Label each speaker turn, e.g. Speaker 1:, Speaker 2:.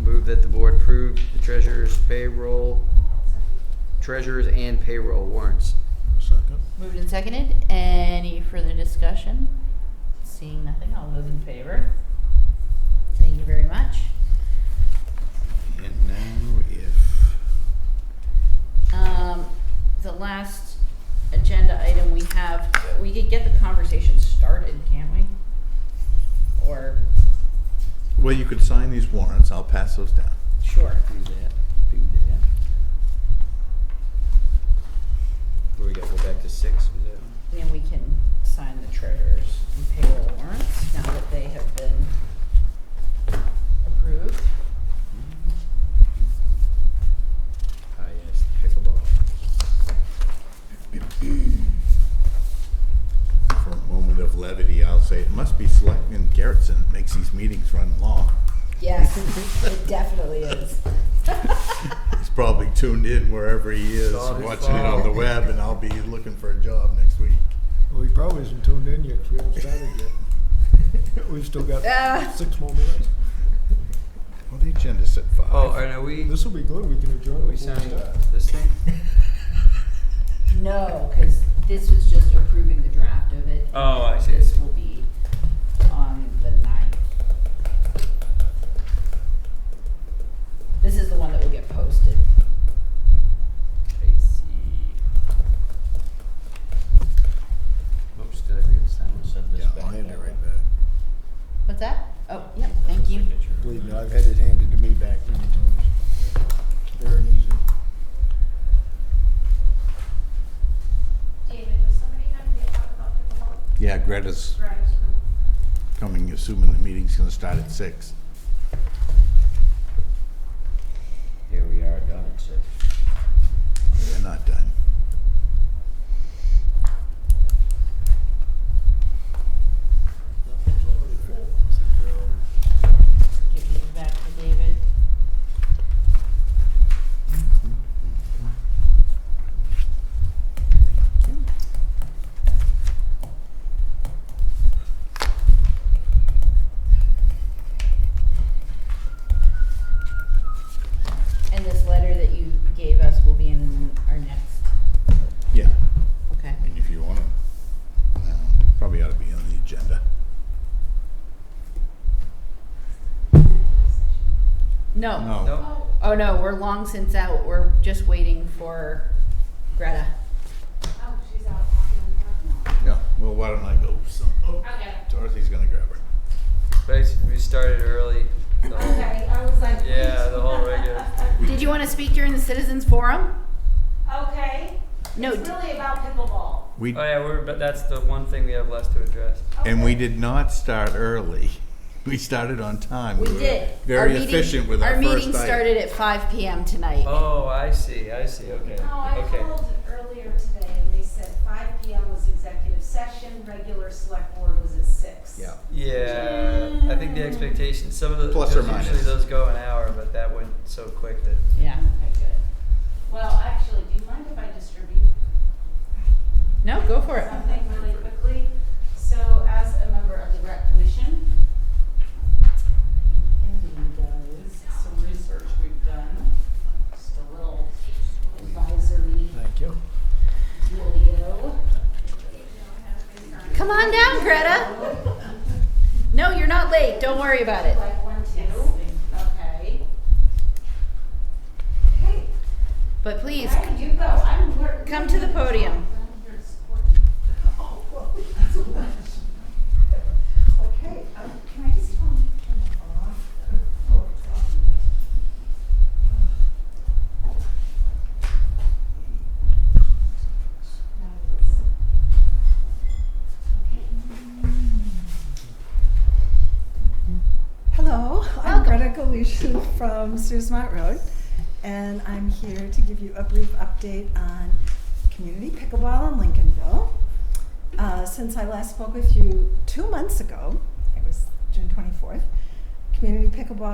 Speaker 1: move that the board approve the treasurer's payroll, treasurer's and payroll warrants.
Speaker 2: Second.
Speaker 3: Moved and seconded. Any further discussion? Seeing nothing, all those in favor? Thank you very much.
Speaker 2: And now if,
Speaker 3: Um, the last agenda item we have, we could get the conversation started, can't we? Or,
Speaker 2: well, you could sign these warrants, I'll pass those down.
Speaker 3: sure.
Speaker 1: Do that, do that. Where we gotta go back to six, was that? one?
Speaker 3: And then we can sign the treasurer's and payroll warrants now that they have been approved.
Speaker 1: Ah, yes, pickleball.
Speaker 2: For a moment of levity, I'll say it must be Selectman Garrettson that makes these meetings run long.
Speaker 3: Yes, it definitely is.
Speaker 2: He's probably tuned in wherever he is,
Speaker 1: Saw his
Speaker 2: watching it on
Speaker 1: phone.
Speaker 2: the web, and I'll be looking for a job next week.
Speaker 4: Well, he probably isn't tuned in yet 'cause we haven't started yet. We've still
Speaker 3: Ah.
Speaker 4: got six more minutes.
Speaker 2: Well, the agenda said five.
Speaker 1: Oh, and are we,
Speaker 4: This will be good. We can
Speaker 1: are
Speaker 4: adjourn.
Speaker 1: we
Speaker 4: before
Speaker 1: signing
Speaker 4: start.
Speaker 1: this thing?
Speaker 3: No, because this was just approving the draft of it.
Speaker 1: Oh, I see.
Speaker 3: This will be on the ninth. This is the one that will get posted.
Speaker 1: I see. Oops, did I forget to sign this?
Speaker 2: Yeah, I'll hand it right back.
Speaker 3: What's that? Oh, yeah, thank you.
Speaker 4: Believe me, I've had it handed to me back many times. It's Very easy.
Speaker 5: David, was somebody having a talk about the vote?
Speaker 2: Yeah, Greta's coming, assuming the meeting's gonna start at six.
Speaker 1: Here we are, done at six.
Speaker 2: They're not done.
Speaker 3: Give these back to David. And this letter that you gave us will be in our next,
Speaker 2: Yeah,
Speaker 3: okay.
Speaker 2: I mean, if you want it. No, Probably ought to be on the agenda.
Speaker 3: No.
Speaker 2: No.
Speaker 1: No?
Speaker 3: Oh, no, we're long since out. We're just waiting for Greta.
Speaker 5: Oh, she's out talking on the phone.
Speaker 2: Yeah, well, why don't I go, some, oh,
Speaker 5: Okay.
Speaker 2: Dorothy's gonna grab her.
Speaker 1: But I s- we started early. the whole-
Speaker 5: Okay, I was like.
Speaker 1: Yeah, the whole regular thing.
Speaker 3: Did you want to speak during the citizens forum?
Speaker 5: Okay.
Speaker 3: No.
Speaker 5: It's
Speaker 3: d-
Speaker 5: really about pickleball.
Speaker 2: We,
Speaker 1: Oh yeah, we're, but that's the one thing we have left to address.
Speaker 2: and we
Speaker 5: Okay.
Speaker 2: did not start early. We started on time.
Speaker 3: We
Speaker 2: were
Speaker 3: did.
Speaker 2: Very
Speaker 3: Our meeting-
Speaker 2: efficient with our first
Speaker 3: Our meeting
Speaker 2: item.
Speaker 3: started at five PM tonight.
Speaker 1: Oh, I see, I see, okay,
Speaker 5: No, I
Speaker 1: okay.
Speaker 5: called earlier today and they said five P M was executive session, regular select board was at six.
Speaker 2: Yeah.
Speaker 1: Yeah, I think the expectation, some of the,
Speaker 2: Plus or
Speaker 1: usually
Speaker 2: minus.
Speaker 1: those go an hour, but that went so quick that,
Speaker 3: Yeah.
Speaker 5: Okay, good. Well, actually, do you mind if I distribute
Speaker 3: No, go for it.
Speaker 5: something really quickly. So as a member of the rec commission, Andy does some research we've done, just a little advisory
Speaker 4: Thank you.
Speaker 5: dealio.
Speaker 3: Come on down, Greta. No, you're not late. Don't worry about it.
Speaker 5: Like one, two, okay. Hey,
Speaker 3: But please,
Speaker 5: Where do you go? I'm wor-
Speaker 3: Come to the podium.
Speaker 5: Oh, well, that's a lot. Okay, um, can I just turn turn it off? Oh, it's off. Now it's-
Speaker 6: Hello,
Speaker 3: Welcome.
Speaker 6: I'm Greta Galushu from Suesmont Road, and I'm here to give you a brief update on community pickleball in Lincolnville. Uh, since I last spoke with you two months ago, it was June 24th, community pickleball